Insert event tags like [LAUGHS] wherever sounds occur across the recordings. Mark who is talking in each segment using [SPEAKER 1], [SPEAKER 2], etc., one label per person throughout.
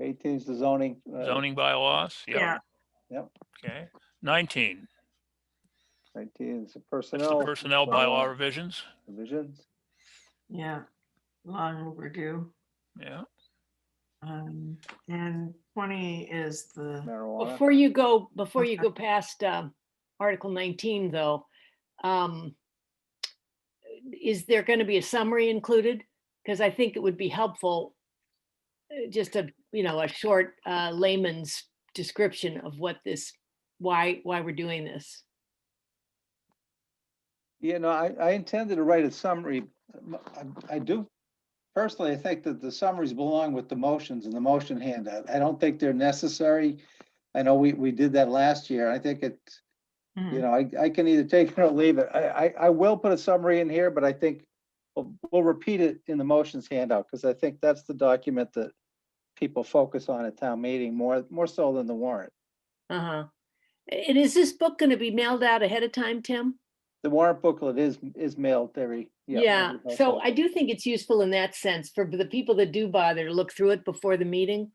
[SPEAKER 1] Eighteen's the zoning. uh,
[SPEAKER 2] zoning bylaws, yeah.
[SPEAKER 3] Yeah.
[SPEAKER 1] Yep.
[SPEAKER 2] Okay, nineteen,
[SPEAKER 1] Nineteen is the
[SPEAKER 2] that's the
[SPEAKER 1] personnel.
[SPEAKER 2] personnel bylaw revisions,
[SPEAKER 1] Provisions.
[SPEAKER 3] Yeah, long overdue.
[SPEAKER 2] yeah.
[SPEAKER 3] Um, and twenty is the,
[SPEAKER 1] marijuana.
[SPEAKER 4] Before you go, before you go past um, Article 19, though, um, is there going to be a summary included? Because I think it would be helpful, uh, just a, you know, a short uh, layman's description of what this, why, why we're doing this.
[SPEAKER 1] You know, I, I intended to write a summary. M- I- I do, personally, I think that the summaries belong with the motions and the motion handout. I don't think they're necessary. I know we, we did that last year. I think it, you
[SPEAKER 3] Mhm.
[SPEAKER 1] know, I, I can either take it or leave it. I, I, I will put a summary in here, but I think we'll, we'll repeat it in the motions handout, because I think that's the document that people focus on at town meeting more, more so than the warrant.
[SPEAKER 4] Uh-huh. And is this book going to be mailed out ahead of time, Tim?
[SPEAKER 1] The warrant booklet is, is mailed every.
[SPEAKER 4] Yeah,
[SPEAKER 1] every
[SPEAKER 4] so
[SPEAKER 1] month.
[SPEAKER 4] I do think it's useful in that sense for the people that do bother to look through it before the meeting.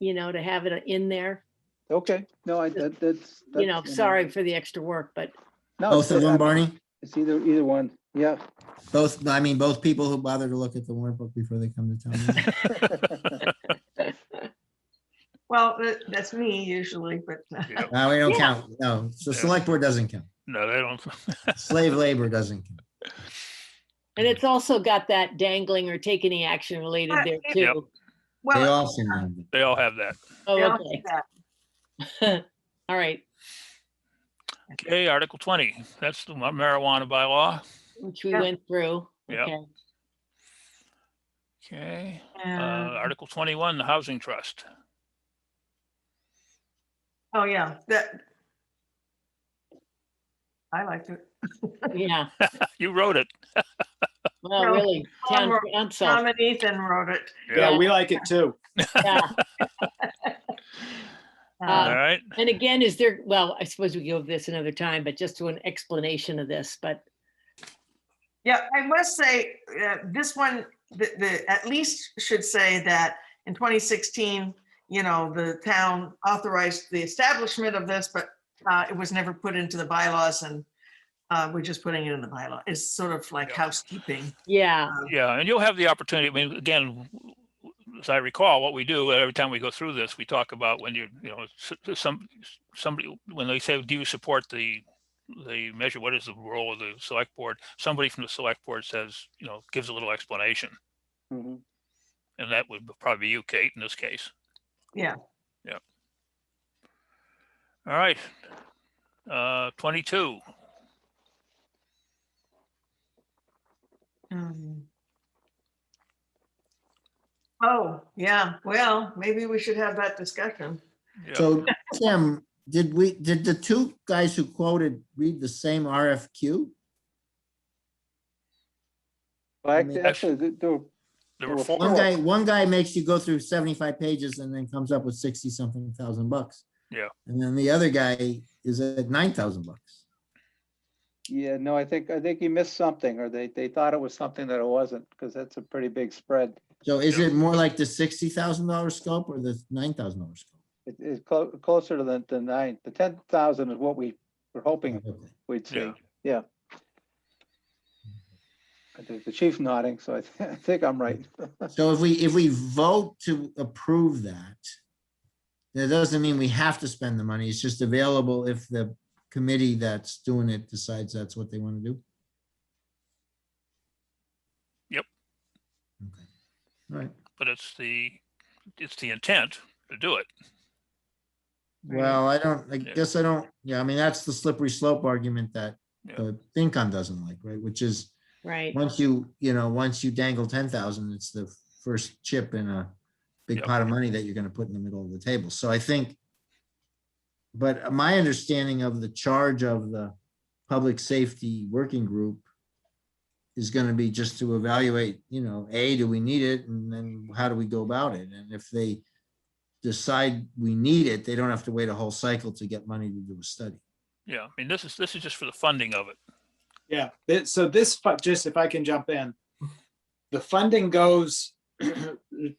[SPEAKER 4] You know, to have it in there,
[SPEAKER 1] Okay, no, I, that, that's.
[SPEAKER 4] you know,
[SPEAKER 1] that's-
[SPEAKER 4] sorry for the extra work, but
[SPEAKER 1] No,
[SPEAKER 5] Both of
[SPEAKER 1] it's-
[SPEAKER 5] them, Barney?
[SPEAKER 1] It's either, either one,
[SPEAKER 4] [LAUGHS]
[SPEAKER 1] yeah.
[SPEAKER 5] Both, I mean, both people who bother to look at the warrant book before they come to town. meeting.
[SPEAKER 3] well, that- that's me usually, but [LAUGHS]
[SPEAKER 2] Yeah.
[SPEAKER 5] Uh, we don't
[SPEAKER 4] Yeah.
[SPEAKER 5] count. No, the
[SPEAKER 2] Yeah.
[SPEAKER 5] select board doesn't count.
[SPEAKER 2] No, they don't, [LAUGHS]
[SPEAKER 5] Slave labor doesn't count.
[SPEAKER 4] and it's also got that dangling or take any action related
[SPEAKER 3] Uh,
[SPEAKER 4] there
[SPEAKER 2] Yep.
[SPEAKER 4] too.
[SPEAKER 5] They
[SPEAKER 3] well.
[SPEAKER 5] all seem to have it.
[SPEAKER 2] they all have that.
[SPEAKER 3] they
[SPEAKER 4] Oh,
[SPEAKER 3] all do
[SPEAKER 4] okay.
[SPEAKER 3] that.
[SPEAKER 4] All right,
[SPEAKER 2] Okay, Article twenty, that's the mar- marijuana bylaw,
[SPEAKER 4] which we
[SPEAKER 3] Yep.
[SPEAKER 4] went through.
[SPEAKER 2] Yep.
[SPEAKER 4] Okay.
[SPEAKER 2] okay. Uh,
[SPEAKER 3] And-
[SPEAKER 2] Article twenty-one, the housing trust, [LAUGHS]
[SPEAKER 3] Oh, yeah, that. I liked it.
[SPEAKER 4] Yeah,
[SPEAKER 2] you wrote it.
[SPEAKER 4] well,
[SPEAKER 3] No,
[SPEAKER 4] really,
[SPEAKER 2] um,
[SPEAKER 3] Tom
[SPEAKER 4] town
[SPEAKER 3] wrote-
[SPEAKER 4] council,
[SPEAKER 3] Tom and Ethan wrote it.
[SPEAKER 6] Yeah, we like it too. [LAUGHS]
[SPEAKER 4] yeah.
[SPEAKER 2] All
[SPEAKER 3] Uh,
[SPEAKER 4] Uh,
[SPEAKER 2] right,
[SPEAKER 4] And again, is there, well, I suppose we go over this another time, but just to an explanation of this, but
[SPEAKER 3] Yeah, I must say, uh, this one, the, the, at least should say that in 2016, you know, the town authorized the establishment of this, but uh, it was never put into the bylaws and uh, we're just putting it in the bylaw. It's sort of like
[SPEAKER 2] Yeah.
[SPEAKER 3] housekeeping.
[SPEAKER 4] yeah,
[SPEAKER 2] yeah, and you'll have the opportunity, I mean, again, as I recall, what we do every time we go through this, we talk about when you, you know, s- s- some, somebody, when they say, do you support the, the measure, what is the role of the select board? Somebody from the select board says, you know, gives a little explanation,
[SPEAKER 1] Mhm.
[SPEAKER 2] and that would probably be you, Kate, in this case.
[SPEAKER 3] Yeah.
[SPEAKER 2] Yeah. All right. Uh, twenty-two,
[SPEAKER 3] Um, Oh, yeah, well, maybe we should have that discussion.
[SPEAKER 2] yeah,
[SPEAKER 5] So Tim, did we, did the two guys who quoted read the same RFQ?
[SPEAKER 1] Well,
[SPEAKER 5] I
[SPEAKER 1] act-
[SPEAKER 5] mean-
[SPEAKER 1] Actually, there- there-
[SPEAKER 2] there were
[SPEAKER 1] Well,
[SPEAKER 2] four,
[SPEAKER 5] One guy, one guy makes you go through seventy-five pages and then comes up with sixty something thousand bucks.
[SPEAKER 2] Yeah.
[SPEAKER 5] And then the other guy is at nine thousand bucks.
[SPEAKER 1] yeah, no, I think, I think he missed something, or they, they thought it was something that it wasn't, because that's a pretty big spread.
[SPEAKER 5] So is
[SPEAKER 2] Yeah.
[SPEAKER 5] it more like the sixty thousand dollar scope or the nine thousand dollar scope?
[SPEAKER 1] It- It's clo- closer to the, the nine, the ten thousand is what we were hoping
[SPEAKER 5] Okay.
[SPEAKER 1] we'd see,
[SPEAKER 2] Yeah.
[SPEAKER 1] yeah. I think the chief nodding, so I [LAUGHS] thi- I think I'm right.
[SPEAKER 5] So if we, if we vote to approve that, that doesn't mean we have to spend the money. It's just available if the committee that's doing it decides that's what they want to do.
[SPEAKER 2] Yep.
[SPEAKER 5] Okay. All right.
[SPEAKER 2] but it's the, it's the intent to do it.
[SPEAKER 5] Well, I don't, I
[SPEAKER 2] Yeah.
[SPEAKER 5] guess I don't, yeah, I mean, that's the slippery slope argument that
[SPEAKER 2] Yeah.
[SPEAKER 5] the FinCon doesn't like, right? Which is,
[SPEAKER 4] right.
[SPEAKER 5] once you, you know, once you dangle ten thousand, it's the first chip in a big
[SPEAKER 2] Yep.
[SPEAKER 5] pot of money that you're gonna put in the middle of the table. So I think. But my understanding of the charge of the public safety working group is gonna be just to evaluate, you know, A, do we need it? And then how do we go about it? And if they decide we need it, they don't have to wait a whole cycle to get money to do a study.
[SPEAKER 2] Yeah, I mean, this is, this is just for the funding of it.
[SPEAKER 6] Yeah, thi- so this, fu- just if I can jump in, the funding goes